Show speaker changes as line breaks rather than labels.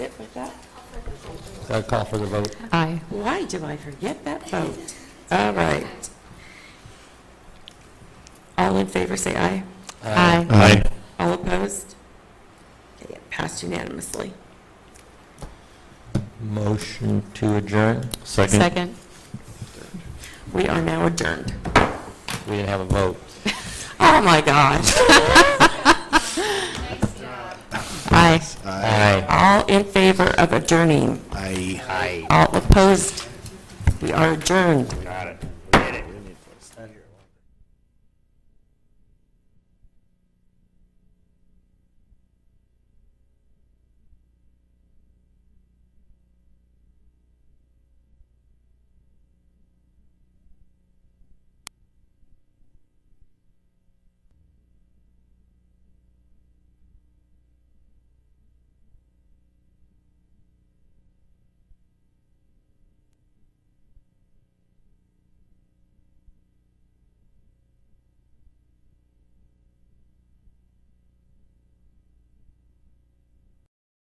stick with that?
I call for the vote.
Aye.
Why do I forget that vote? All right. All in favor, say aye.
Aye.
Aye.
All opposed? Okay, it Passed unanimously.
Motion to adjourn.
Second?
Second.
We are now adjourned.
We didn't have a vote.
Oh, my gosh.
Aye.
Aye.
All in favor of adjourning?
Aye.
All opposed? We are adjourned.
Got it.